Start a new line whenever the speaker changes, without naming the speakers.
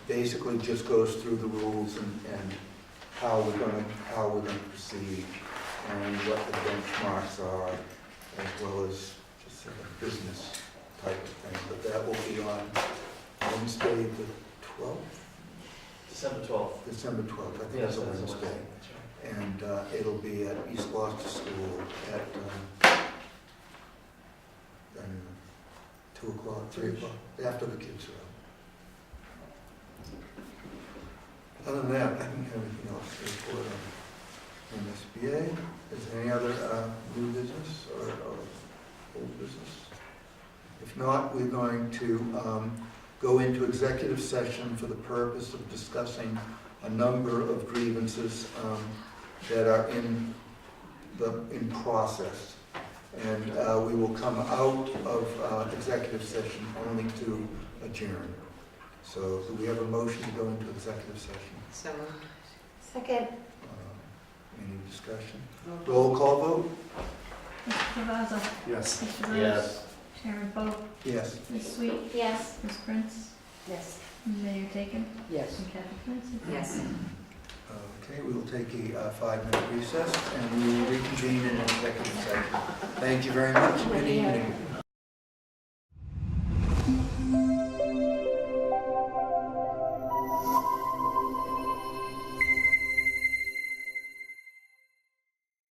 basically just goes through the rules and, and how we're gonna, how we're gonna proceed and what the benchmarks are, as well as just sort of business type of thing. But that will be on Wednesday, the twelfth,
December twelfth.
December twelfth, I think it's a Wednesday. And uh, it'll be at East Gloucester School at, um, um, two o'clock, three o'clock, after the kids are out. Other than that, I think everything else is for MSBA. Is there any other uh, new business or or old business? If not, we're going to um, go into executive session for the purpose of discussing a number of grievances um, that are in the, in process. And uh, we will come out of uh, executive session only to adjourn. So do we have a motion to go into executive session?
So moved.
Second.
Uh, Any discussion? Roll call vote?
Mr. Cavazza.
Yes.
Mr. Rhodes.
Yes.
Sharon Boat.
Yes.
Ms. Sweet.
Yes.
Ms. Prince.
Yes.
Mayor Dakin.
Yes.
And Kathy Clancy.
Yes.
Okay, we will take a uh, five-minute recess and we will reconvene in executive session. Thank you very much. Good evening.